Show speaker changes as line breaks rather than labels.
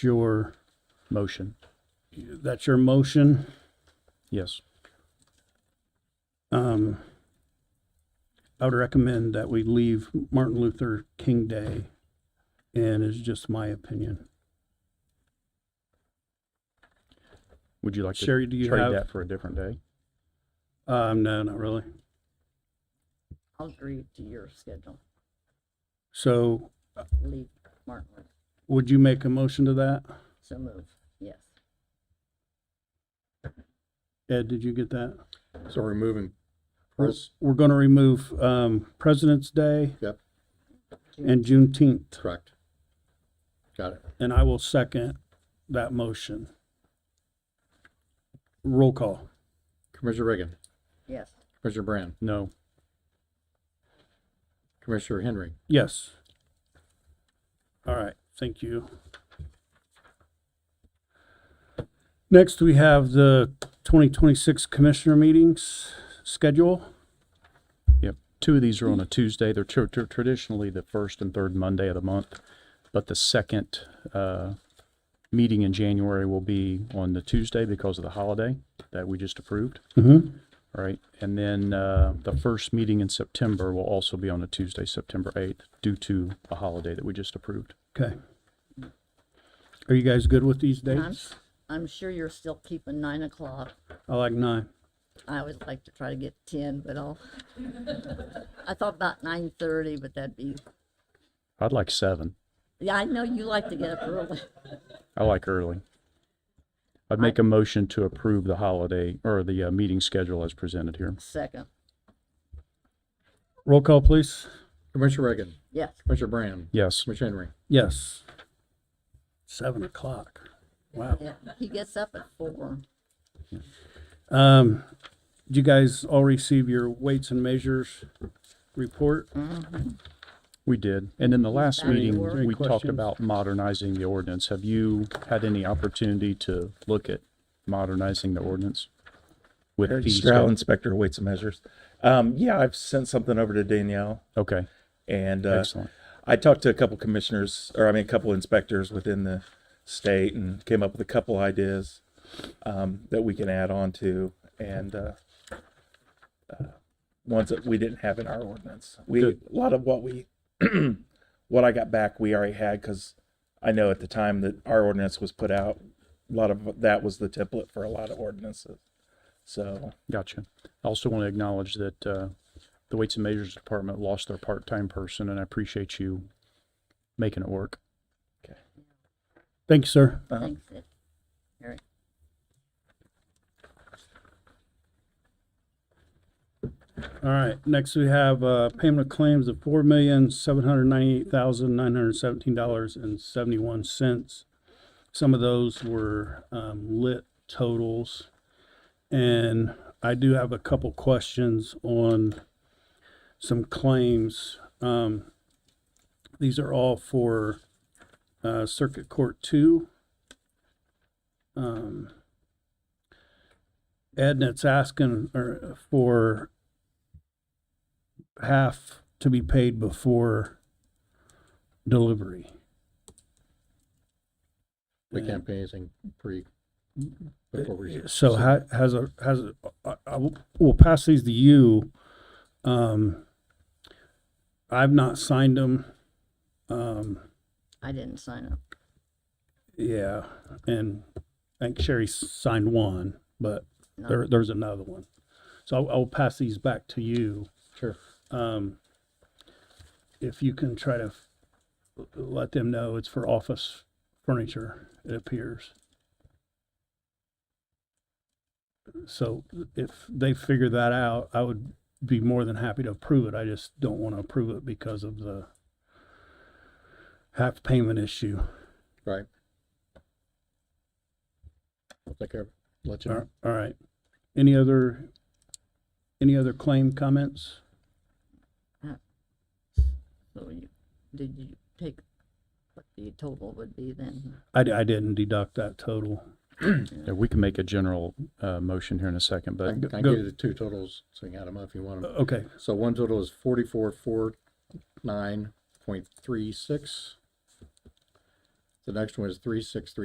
your,
Motion,
that's your motion.
yes.
Um, I would recommend that we leave Martin Luther King Day, and it's just my opinion.
Would you like to
Sherry, do you
trade
have?
that for a different day?
Um, no, not really.
I'll agree to your schedule.
So
Leave Martin Luther.
would you make a motion to that?
So move. Yes.
Ed, did you get that?
So we're moving
We're-
Pres-
We're going to remove, um, President's Day.
Yep.
And Juneteenth.
correct. Got it.
And I will second that motion. Roll call.
Commissioner Reagan,
Yes.
Commissioner Brand,
No,
Commissioner Henry.
Yes. All right, thank you. Next, we have the 2026 Commissioner Meetings schedule.
yep. Two of these are on a Tuesday. They're tr- tr- traditionally the first and third Monday of the month, but the second uh, meeting in January will be on the Tuesday because of the holiday that we just approved.
Mm-hmm.
All right, and then uh, the first meeting in September will also be on a Tuesday, September 8th, due to a holiday that we just approved.
Okay. Are you guys good with these
I'm,
dates?
I'm sure you're still keeping nine o'clock.
I like nine.
I would like to try to get ten, but I'll. I thought about nine thirty, but that'd be,
I'd like seven.
yeah, I know you like to get up early.
I like early. I'd make a motion to approve the holiday or the uh, meeting schedule as presented here.
Second.
Roll call, please.
Commissioner Reagan,
Yes.
Commissioner Brand,
Yes,
Commissioner Henry.
Yes. Seven o'clock. Wow.
Yeah. He gets up at four.
Um, did you guys all receive your weights and measures report?
we did. And in the last
Any
meeting,
more
we talked
questions?
about modernizing the ordinance. Have you had any opportunity to look at modernizing the ordinance? With
Eric
fees?
Stroud, Inspector of Weights and Measures. Um, yeah, I've sent something over to Danielle
Okay,
and, uh,
excellent.
I talked to a couple commissioners, or I mean, a couple inspectors within the state and came up with a couple ideas, um, that we can add on to and, uh, uh, ones that we didn't have in our ordinance. We, a
Good.
lot of what we, what I got back, we already had, cause I know at the time that our ordinance was put out, a lot of that was the template for a lot of ordinances. So,
Gotcha. I also want to acknowledge that uh, the Weights and Measures Department lost their part-time person, and I appreciate you making it work.
Thank you, sir.
uh,
Thanks. Ed. Eric.
All right, next we have, uh, payment of claims of four million, seven hundred ninety-eight thousand, nine hundred seventeen dollars and seventy-one cents. Some of those were, um, lit totals. And I do have a couple questions on some claims. Um, these are all for, uh, Circuit Court Two. Um, Ednet's asking, or, for half to be paid before delivery.
We
Yeah.
can't pay anything pre, before we.
So ha- has a, has, a- I, I will, we'll pass these to you. Um, I've not signed them. Um,
I didn't sign up.
yeah, and I think Sherry signed one, but
No.
there, there's another one. So I'll, I'll pass these back to you.
Sure.
um, if you can try to f- let them know it's for office furniture, it appears. So if they figure that out, I would be more than happy to approve it. I just don't want to approve it because of the half payment issue.
Right. I'll take care of it. Let you
All
know.
all right. Any other, any other claim comments?
So you, did you take what the total would be then?
I, d- I didn't deduct that total.
Yeah, we can make a general uh, motion here in a second,
I
but
can I can
go-
give you the two totals, so you can add them up if you want them.
Okay,
So one total is forty-four, four, nine point three six. The next one is three six three